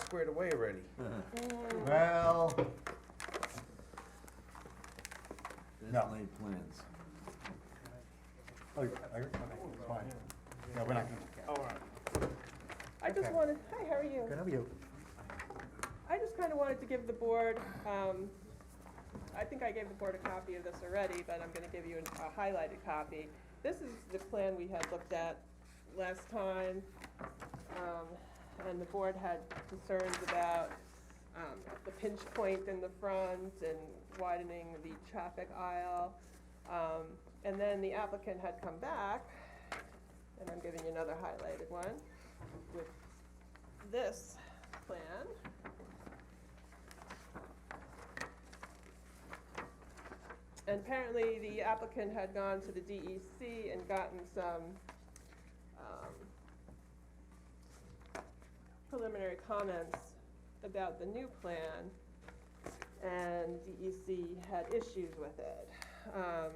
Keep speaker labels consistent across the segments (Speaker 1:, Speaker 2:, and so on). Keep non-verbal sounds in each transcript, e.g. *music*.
Speaker 1: squared away already.
Speaker 2: Well, No.
Speaker 3: That's laid plans.
Speaker 2: oh, you- oh, you- okay, it's fine. No, we're not gonna look at it.
Speaker 4: I just
Speaker 2: Okay.
Speaker 4: wanted, hi, how are you?
Speaker 2: Good, how are you?
Speaker 4: I just kind of wanted to give the board, um, I think I gave the board a copy of this already, but I'm gonna give you an- a highlighted copy. This is the plan we had looked at last time, um, and the board had concerns about, um, the pinch point in the front and widening the traffic aisle. Um, and then the applicant had come back, and I'm giving you another highlighted one with this plan. And apparently, the applicant had gone to the DEC and gotten some, um, preliminary comments about the new plan, and DEC had issues with it. Um,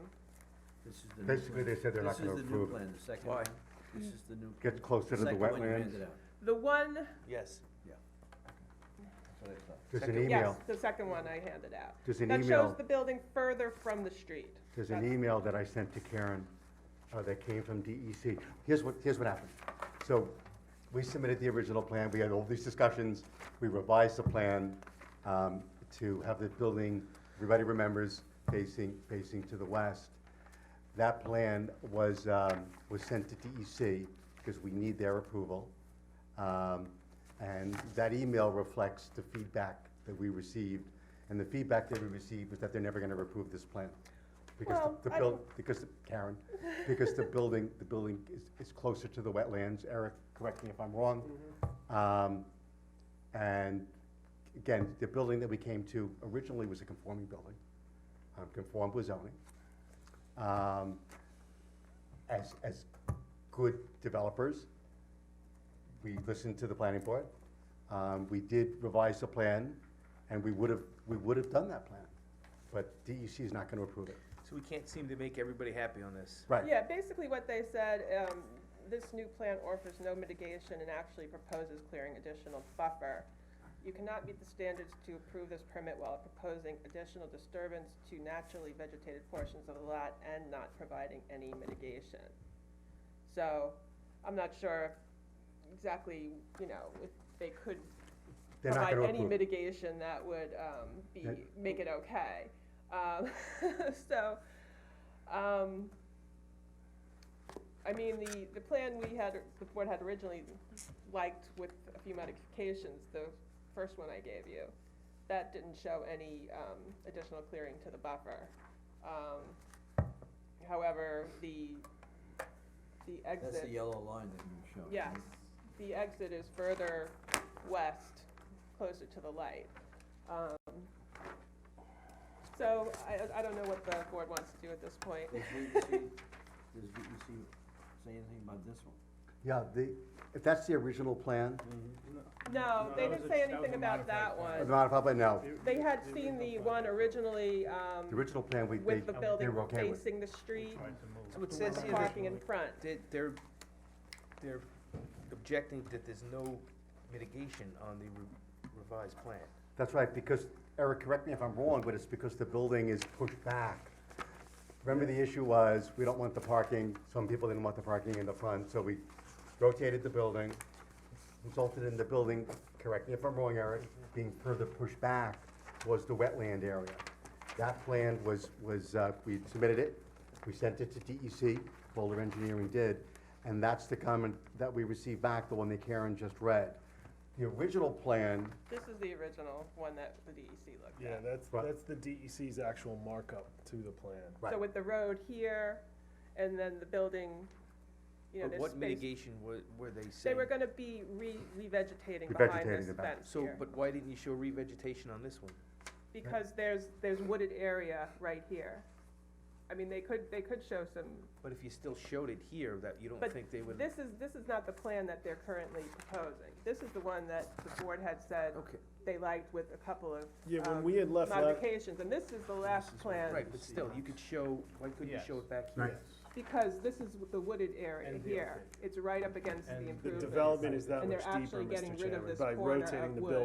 Speaker 3: This is the new plan.
Speaker 2: Basically, they said they're not gonna
Speaker 3: This is the new
Speaker 2: approve it.
Speaker 3: plan, the second
Speaker 1: Why?
Speaker 3: one. This is the new.
Speaker 2: Gets closer to the
Speaker 3: second one you
Speaker 2: wetlands.
Speaker 3: handed out.
Speaker 4: The one,
Speaker 1: Yes.
Speaker 3: That's what I thought.
Speaker 2: There's an
Speaker 1: Second-
Speaker 4: yes,
Speaker 2: email,
Speaker 4: the second one I handed out.
Speaker 2: there's an
Speaker 4: That shows
Speaker 2: email,
Speaker 4: the building further from the street.
Speaker 2: there's an email that I sent to Karen, uh, that came from DEC. Here's what, here's what happened. So, we submitted the original plan, we had all these discussions, we revised the plan, um, to have the building, everybody remembers, facing, facing to the west. That plan was, um, was sent to DEC, because we need their approval. Um, And that email reflects the feedback that we received, and the feedback that we received was that they're never gonna approve this plan. Because
Speaker 4: Well,
Speaker 2: the- the
Speaker 4: I
Speaker 2: build, because, the- Karen, because the building, the building is, is closer to the wetlands, Eric, correct me if I'm wrong.
Speaker 4: Mm-hmm.
Speaker 2: Um, And again, the building that we came to originally was a conforming building, um, conformed with zoning. Um, As, as good developers, we listened to the planning board. Um, we did revise the plan, and we would have, we would have done that plan, but DEC is not gonna approve it.
Speaker 1: So we can't seem to make everybody happy on this.
Speaker 2: Right.
Speaker 4: Yeah, basically what they said, um, this new plan offers no mitigation and actually proposes clearing additional buffer. You cannot meet the standards to approve this permit while proposing additional disturbance to naturally vegetated portions of the lot and not providing any mitigation. So, I'm not sure exactly, you know, if they could
Speaker 2: They're not
Speaker 4: provide
Speaker 2: gonna
Speaker 4: any
Speaker 2: approve it.
Speaker 4: mitigation that would, um, be,
Speaker 2: Yeah.
Speaker 4: make it okay. Um, *laughs* so, um, I mean, the, the plan we had, the board had originally liked with a few modifications, the first one I gave you, that didn't show any, um, additional clearing to the buffer. Um, however, the, the exit.
Speaker 3: That's the yellow line that you showed.
Speaker 4: Yes, the exit is further west, closer to the light. Um, So I, I don't know what the board wants to do at this point.
Speaker 3: Does VEC, does VEC say anything about this one?
Speaker 2: Yeah, the, if that's the original plan,
Speaker 4: No, they didn't say anything about that
Speaker 2: the
Speaker 4: one.
Speaker 2: modified plan, no,
Speaker 4: *laughs* They had seen the one originally, um,
Speaker 2: the original plan, we, they,
Speaker 4: with the
Speaker 2: they
Speaker 4: building
Speaker 2: were okay with.
Speaker 4: facing the street,
Speaker 1: So it
Speaker 4: with
Speaker 1: says
Speaker 4: the
Speaker 1: here that
Speaker 4: parking in front.
Speaker 1: they- they're, they're objecting that there's no mitigation on the re- revised plan.
Speaker 2: That's right, because, Eric, correct me if I'm wrong, but it's because the building is pushed back. Remember, the issue was, we don't want the parking, some people didn't want the parking in the front, so we rotated the building, resulted in the building, correct me if I'm wrong, Eric, being further pushed back was the wetland area. That plan was, was, uh, we submitted it, we sent it to DEC, Boulder Engineering did, and that's the comment that we received back, the one that Karen just read. The original plan
Speaker 4: This is the original one that the DEC looked
Speaker 5: Yeah,
Speaker 4: at.
Speaker 5: that's,
Speaker 2: Right.
Speaker 5: that's the DEC's actual markup to the plan.
Speaker 2: Right.
Speaker 4: So with the road here, and then the building, you know,
Speaker 1: But
Speaker 4: there's space.
Speaker 1: what mitigation were, were they
Speaker 4: They
Speaker 1: saying?
Speaker 4: were gonna be re- revegetating behind
Speaker 2: Revegetating
Speaker 4: this
Speaker 2: the back.
Speaker 4: fence
Speaker 1: So,
Speaker 4: here,
Speaker 1: but why didn't you show revegetation on this one?
Speaker 4: because there's, there's wooded area right here. I mean, they could, they could show some,
Speaker 1: But if you still showed it here, that you don't
Speaker 4: But
Speaker 1: think they would.
Speaker 4: this is, this is not the plan that they're currently proposing. This is the one that the board had said
Speaker 1: Okay,
Speaker 4: they liked with a couple of
Speaker 5: Yeah, when
Speaker 4: Um,
Speaker 5: we had left, la-
Speaker 4: modifications, and this is the last
Speaker 3: is what-
Speaker 4: plan,
Speaker 1: right, but still, you could show, why couldn't you show it back
Speaker 2: Right.
Speaker 1: here?
Speaker 4: because this is the wooded area
Speaker 5: And the
Speaker 4: here. It's right up against the
Speaker 5: the
Speaker 4: improvements.
Speaker 5: development is that
Speaker 4: And
Speaker 5: much
Speaker 4: they're
Speaker 5: deeper,
Speaker 4: actually getting
Speaker 5: Mr.
Speaker 4: rid of
Speaker 5: Chairman,
Speaker 4: this
Speaker 5: by
Speaker 4: corner
Speaker 5: rotating
Speaker 4: of
Speaker 5: the
Speaker 4: wood.
Speaker 5: building.